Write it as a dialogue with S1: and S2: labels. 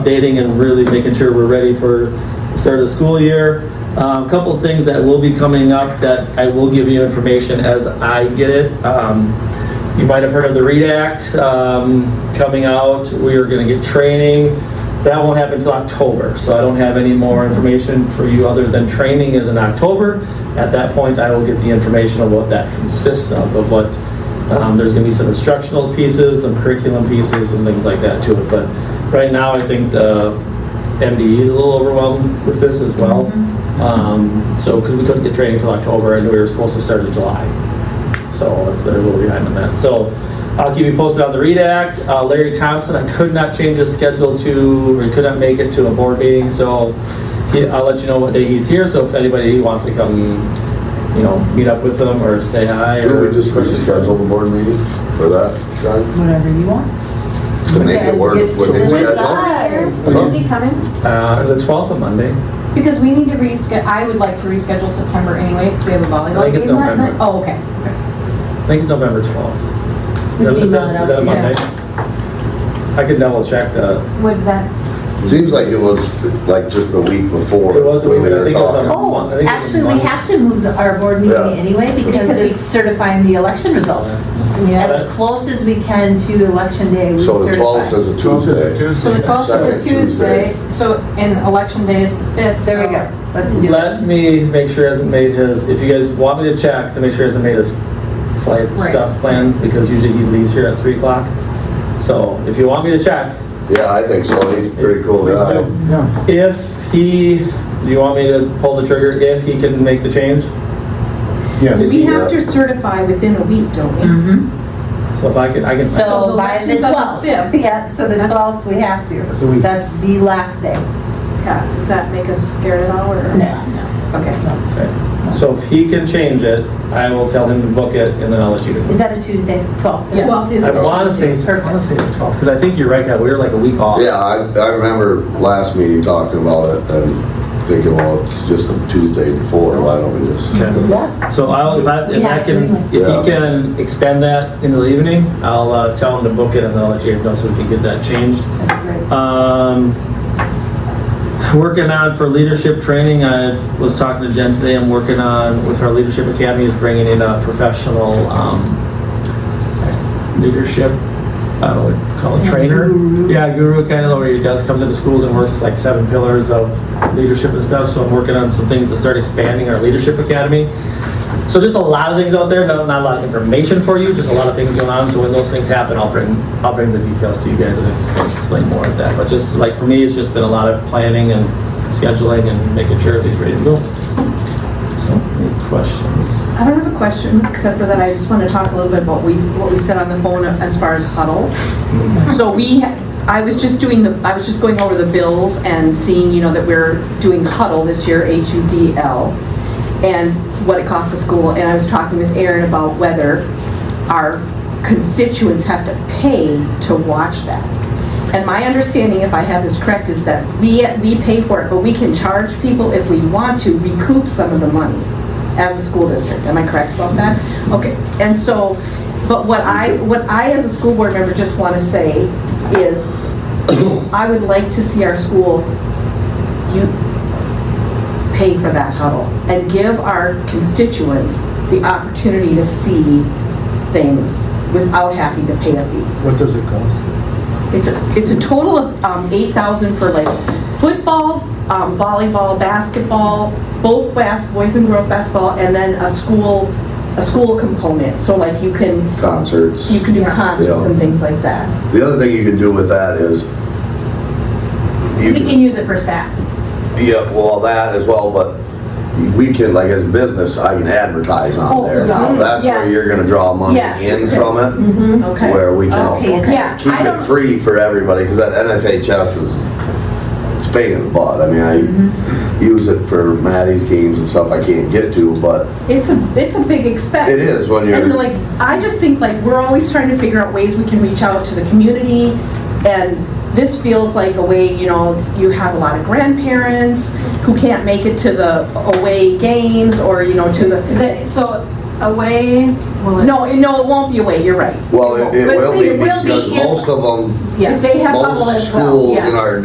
S1: updating and really making sure we're ready for the start of the school year. A couple of things that will be coming up that I will give you information as I get it. Um, You might have heard of the READ Act um, coming out. We are going to get training. That won't happen until October, so I don't have any more information for you other than training is in October. At that point, I will get the information of what that consists of, of what um, There's going to be some instructional pieces, some curriculum pieces, and things like that to it. But right now, I think the MDE is a little overwhelmed with this as well. Um, So, because we couldn't get training until October, and we were supposed to start in July. So it's- they're a little behind on that. So I'll keep you posted on the READ Act. Uh, Larry Thompson, I could not change his schedule to, or could not make it to a board meeting, so he- I'll let you know what day he's here. So if anybody wants to come, you know, meet up with him or say hi.
S2: Can
S1: or
S2: we just reschedule the board meeting for that, John?
S3: Whatever you want.
S2: To make it work
S4: Yes,
S2: with his
S4: it's- it's
S2: schedule?
S4: not. Is he coming?
S1: Uh, the 12th of Monday.
S4: Because we need to reschedule, I would like to reschedule September anyway, because we have a
S1: I
S4: volleyball
S1: think it's
S4: game that
S1: November.
S4: night. Oh, okay.
S1: I think it's November 12th. Is that-
S4: We can
S1: is
S4: email
S1: that-
S4: it
S1: is
S4: out
S1: that a
S4: to you.
S1: Monday?
S4: guys.
S1: I could double check the,
S4: Would that,
S2: Seems like it was like just the week before
S1: It was the
S2: when
S1: week,
S2: we
S1: I
S2: were
S1: think it was on-
S2: talking.
S3: Oh,
S1: I think it's
S3: actually, we
S1: Monday.
S3: have to move the, our board
S2: Yeah.
S3: meeting anyway because
S4: Because we-
S3: it's certifying the election results.
S4: yeah.
S3: As close as we can to election day, we
S2: So the twelfth
S3: certify.
S2: is a Tuesday.
S4: So the 12th is
S2: Second
S4: a Tuesday,
S2: Tuesday.
S4: so, and election day is the 5th.
S3: There we
S4: so-
S3: go, let's do it.
S1: Let me make sure he hasn't made his, if you guys want me to check to make sure he hasn't made his flight
S4: Right.
S1: stuff plans, because usually he leaves here at 3 o'clock. So if you want me to check,
S2: Yeah, I think so. He's a pretty cool guy.
S1: if he, do you want me to pull the trigger if he can make the change?
S5: Yes.
S6: We have to certify within a week, don't we?
S3: Mhm.
S1: So if I can, I can,
S6: So
S3: So
S6: the
S3: by the
S6: election's on the
S3: twelfth,
S6: fifth.
S3: yeah, so the
S6: That's-
S3: twelfth, we have to.
S5: a week.
S3: That's the last day.
S6: Yeah, does that make us scared at all, or? Okay.
S1: okay. So if he can change it, I will tell him to book it, and then I'll let you guys know.
S3: Is that a Tuesday, twelfth?
S6: Yes. Well,
S1: I want to say, I want to say the 12th, because I think you're right, Kat, we were like a week off.
S2: Yeah, I, I remember last meeting talking about it and thinking, well, it's just a Tuesday before, why don't we just?
S1: Okay.
S3: Yeah,
S1: So I'll, if I, if
S3: We
S1: I
S3: have to
S1: can,
S3: anyway.
S1: if he
S2: Yeah.
S1: can extend that into the evening, I'll uh, tell him to book it and then I'll let you guys know so we can get that changed. Um, working on for leadership training, I was talking to Jen today, I'm working on, with our leadership academy, is bringing in a professional, um, leadership, I don't know what to call it, trainer? Yeah, guru kind of, where he does, comes into schools and works like seven pillars of leadership and stuff, so I'm working on some things to start expanding our leadership academy. So just a lot of things out there, not, not a lot of information for you, just a lot of things going on, so when those things happen, I'll bring, I'll bring the details to you guys and explain more of that, but just, like, for me, it's just been a lot of planning and scheduling and making sure everything's ready to go. So, any questions?
S6: I don't have a question, except for that I just want to talk a little bit about we, what we said on the phone as far as huddle. So we, I was just doing the, I was just going over the bills and seeing, you know, that we're doing huddle this year, H-U-D-L, and what it costs the school, and I was talking with Aaron about whether our constituents have to pay to watch that. And my understanding, if I have this correct, is that we, we pay for it, but we can charge people if we want to recoup some of the money as a school district. Am I correct about that? Okay, and so, but what I, what I as a school board member just want to say is, I would like to see our school, you, pay for that huddle and give our constituents the opportunity to see things without having to pay a fee.
S5: What does it cost?
S6: It's a, it's a total of um, 8,000 for like football, um, volleyball, basketball, both bas, boys and girls basketball, and then a school, a school component. So like you can,
S2: Concerts.
S6: you can do concerts and things like that.
S2: The other thing you can do with that is. you
S4: We can use it for stats.
S2: Yeah, well, that as well, but we can, like as a business, I can advertise on
S4: Oh,
S2: there.
S4: yes,
S2: That's where
S4: yes.
S2: you're gonna draw money
S4: Yes.
S2: in from it,
S6: Okay.
S2: where we
S3: Okay,
S2: can
S3: is that-
S4: Yeah,
S2: keep
S4: I
S2: it
S4: don't,
S2: free for everybody, because that NFHS is, it's a pain in the butt. I mean, I use it for Maddie's games and stuff I can't get to, but
S6: It's a, it's a big expense.
S2: it is when
S6: And
S2: you're,
S6: like, I just think like, we're always trying to figure out ways we can reach out to the community, and this feels like a way, you know, you have a lot of grandparents who can't make it to the away games, or, you know, to the,
S4: the- so away, will it?
S6: no, no, it won't be away, you're right.
S2: well, it it
S6: But
S2: will
S6: it
S2: be,
S6: will be
S2: because
S6: if-
S2: most of them,
S6: If
S4: Yes.
S6: they have bubble
S2: most
S6: as well.
S2: schools in
S4: yes.
S2: our